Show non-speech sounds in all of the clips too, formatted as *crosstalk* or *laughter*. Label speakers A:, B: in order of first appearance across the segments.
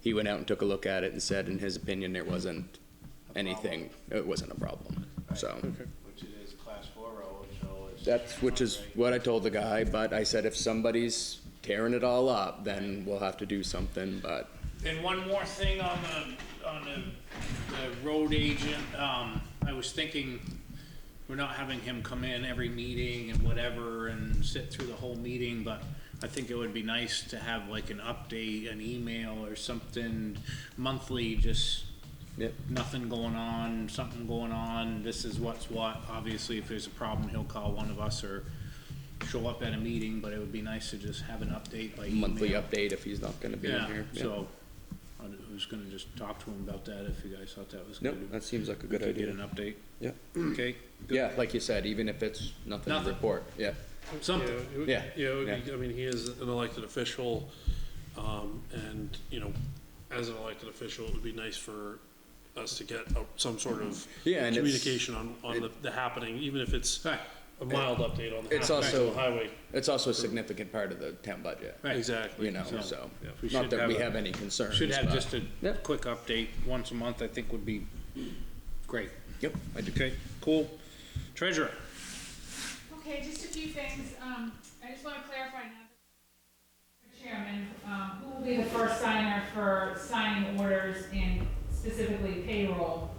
A: He went out and took a look at it and said, in his opinion, there wasn't anything, it wasn't a problem, so.
B: Which it is class four road, so it's.
A: That's, which is what I told the guy, but I said if somebody's tearing it all up, then we'll have to do something, but
C: And one more thing on the, on the, the road agent, um, I was thinking, we're not having him come in every meeting and whatever and sit through the whole meeting, but I think it would be nice to have like an update, an email or something monthly, just
A: Yep.
C: nothing going on, something going on, this is what's what. Obviously, if there's a problem, he'll call one of us or show up at a meeting, but it would be nice to just have an update by email.
A: monthly update if he's not gonna be in
C: Yeah,
A: here. Yeah.
C: so I d- I was gonna just talk to him about that if you guys thought that was
A: Nope,
C: good.
A: that seems like a
C: We
A: good
C: could Get an
A: idea.
C: update.
A: Yeah,
C: Okay. good.
A: yeah, like you said, even if it's nothing to
C: Nothing.
A: report, yeah,
C: Something.
D: Yeah, it would-
A: Yeah,
D: Yeah, it would be-
A: yeah.
D: I mean, he is an elected official, um, and, you know, as an elected official, it would be nice for us to get a- some sort of
A: Yeah, and it's-
D: communication on, on the, the happening, even if it's
C: Right,
D: a mild update on the
A: It's
D: happenings on
A: also-
D: the highway.
A: it's also a significant part of the town budget,
C: right.
D: Exactly.
A: you know,
C: So,
A: so,
D: yeah.
C: We
A: not
C: should
A: that we
C: have a-
A: have any concerns.
C: Should have
A: but-
C: just a
A: Yeah.
C: quick update once a month, I think would be great.
A: Yep, I do.
C: Okay, cool. Treasurer,
E: Okay, just a few things. Um, I just want to clarify now. that- Chairman, um, who will be the first signer for signing orders and specifically payroll?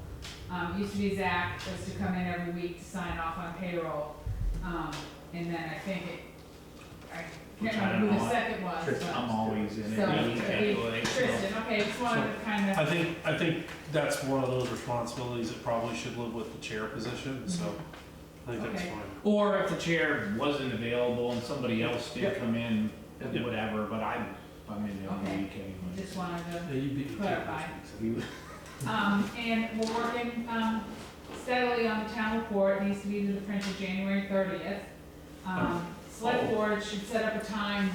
E: Um, used to be Zach, was to come in every week to sign off on payroll. Um, and then I think it, I
F: Which I
E: can't
F: don't
E: remember who
F: know.
E: the second was.
F: Tristan,
E: but-
F: I'm always in it.
E: So,
F: Yeah, you
E: it'd
F: can't
E: be
F: do it.
E: Tristan, okay, just wanted to kind of.
F: I think, I think that's one of those responsibilities that probably should live with the chair position, so I think that's
E: Okay.
F: fine.
C: or,
F: Or if the chair wasn't available and somebody else did come in, whatever, but I'm, I'm in there on the
E: Okay.
F: week anyway.
E: Just wanted to.
F: Yeah, you beat me to it
E: Clarify.
F: this week, so you-
E: Um, and we're working, um, steadily on the town report, it needs to be to the printer January thirtieth.
F: Oh.
E: Um, select board should set up a time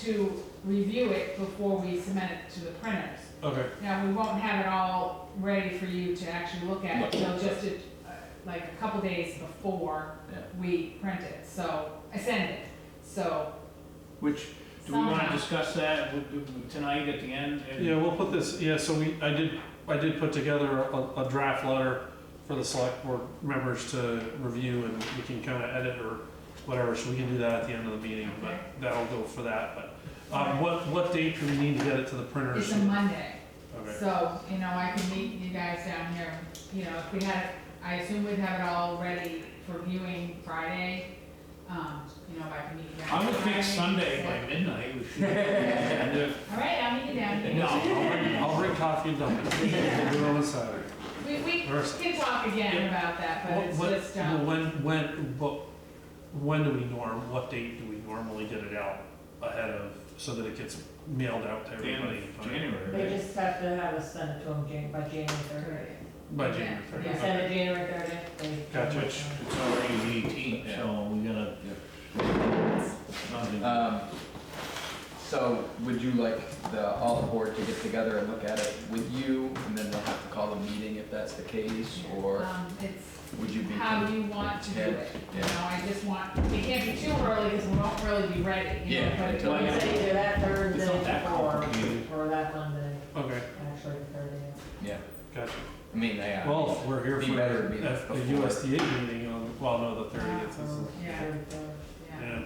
E: to review it before we submit it to the printers.
F: Okay,
E: Now, we won't have it all ready for you to actually look at, so just a- like a couple days before
F: Yeah.
E: we print it, so, I send it, so.
F: which, do we wanna
E: somehow-
F: discuss that with- with- tonight at the end? And-
G: Yeah, we'll put this, yeah, so we, I did, I did put together a, a draft letter for the select board members to review and we can kind of edit or whatever, so we can do that at the end of the meeting, but
E: Okay.
G: that'll go for that, but, um, what, what date do we need to get it to the printers?
E: It's a Monday.
G: Okay.
E: So, you know, I can meet you guys down here, you know, if we had, I assume we'd have it all ready for viewing Friday. Um, you know, if I can meet you guys.
F: I would think
E: Friday,
F: Sunday
E: so-
F: by midnight we should. No,
E: All right, I'll meet you down
F: I'll
E: here.
F: bring- I'll
G: I'll bring coffee and
E: *laughs*
G: donuts, we'll do it on the Saturday.
E: We, we
G: First.
E: can talk again about that, but
G: What-
E: it's
G: what-
E: just, um,
G: When, when, but, when do we norm, what date do we normally get it out ahead of, so that it gets mailed out to
F: bring the
G: everybody?
F: end of January,
H: They
F: right?
H: just have to have us send it to them Jan- by January thirtieth.
G: By January
E: Yeah,
G: thirtieth.
E: yeah.
H: Send it January thirtieth, they.
G: Gotcha.
F: Which, it's already the eighteenth, so we gotta. Nothing.
I: Um, so would you like the, all the board to get together and look at it with you, and then they'll have to call a meeting if that's the case, or
E: um, it's
I: would you be?
E: how you want to do it. You know, I just want, it can't be too early because we won't really be ready, you know,
I: Yeah,
E: but
I: until
E: like I
H: It's
E: said,
H: either that Thursday
F: It's not that complicated.
H: or, or that Monday,
G: Okay,
H: actually thirtieth.
I: Yeah,
G: gotcha.
I: I mean, they, uh,
G: Well, if we're here
I: Be
G: for
I: better to be
G: the F- the
I: before.
G: USDA meeting on, well, no, the thirtieth is,
H: Oh,
E: Yeah. yeah.
G: yeah.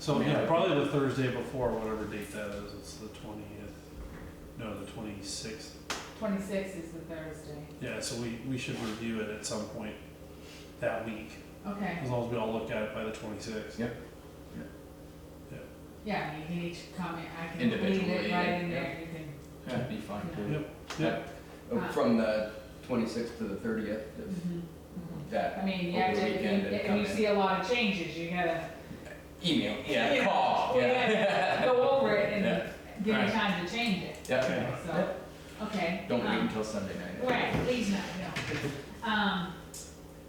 G: So,
I: Yeah.
G: yeah, probably the Thursday before, whatever date that is, it's the twentieth, no, the twenty-sixth.
E: Twenty-sixth is the Thursday.
G: Yeah, so we, we should review it at some point that week,
E: Okay,
G: as long as we all look at it by the twenty-sixth.
I: Yep. Yep.
G: Yeah.
E: yeah, I mean, you can each comment, I can leave
I: Individually,
E: it right in
I: yeah.
E: there, you can,
I: that'd be fine too.
G: Yep.
I: Uh, From the twenty-sixth to the thirtieth, that.
E: I mean, you have
I: over
E: to,
I: the
E: if
I: weekend
E: you,
I: and
E: if
I: come
E: you
I: in.
E: see a lot of changes, you gotta.
I: Email, yeah,
E: *laughs*
I: call,
E: we
I: yeah. *laughs*
E: gotta Go over it and
I: Yeah.
E: give you
I: Right.
E: time to change it,
I: Yeah,
E: so, okay.
I: don't wait
E: um,
I: until Sunday night.
E: Right, please not, no. Um,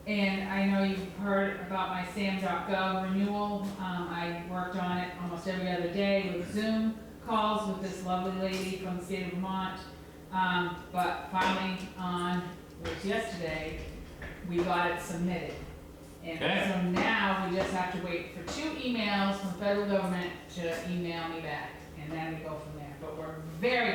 E: and I know you've heard about my SAM.gov renewal. Um, I worked on it almost every other day with Zoom calls with this lovely lady from the state of Vermont. Um, but finally on, which yesterday, we got it submitted. And
F: Okay.
E: so now we just have to wait for two emails from federal government to email me back, and then we go from there. But we're very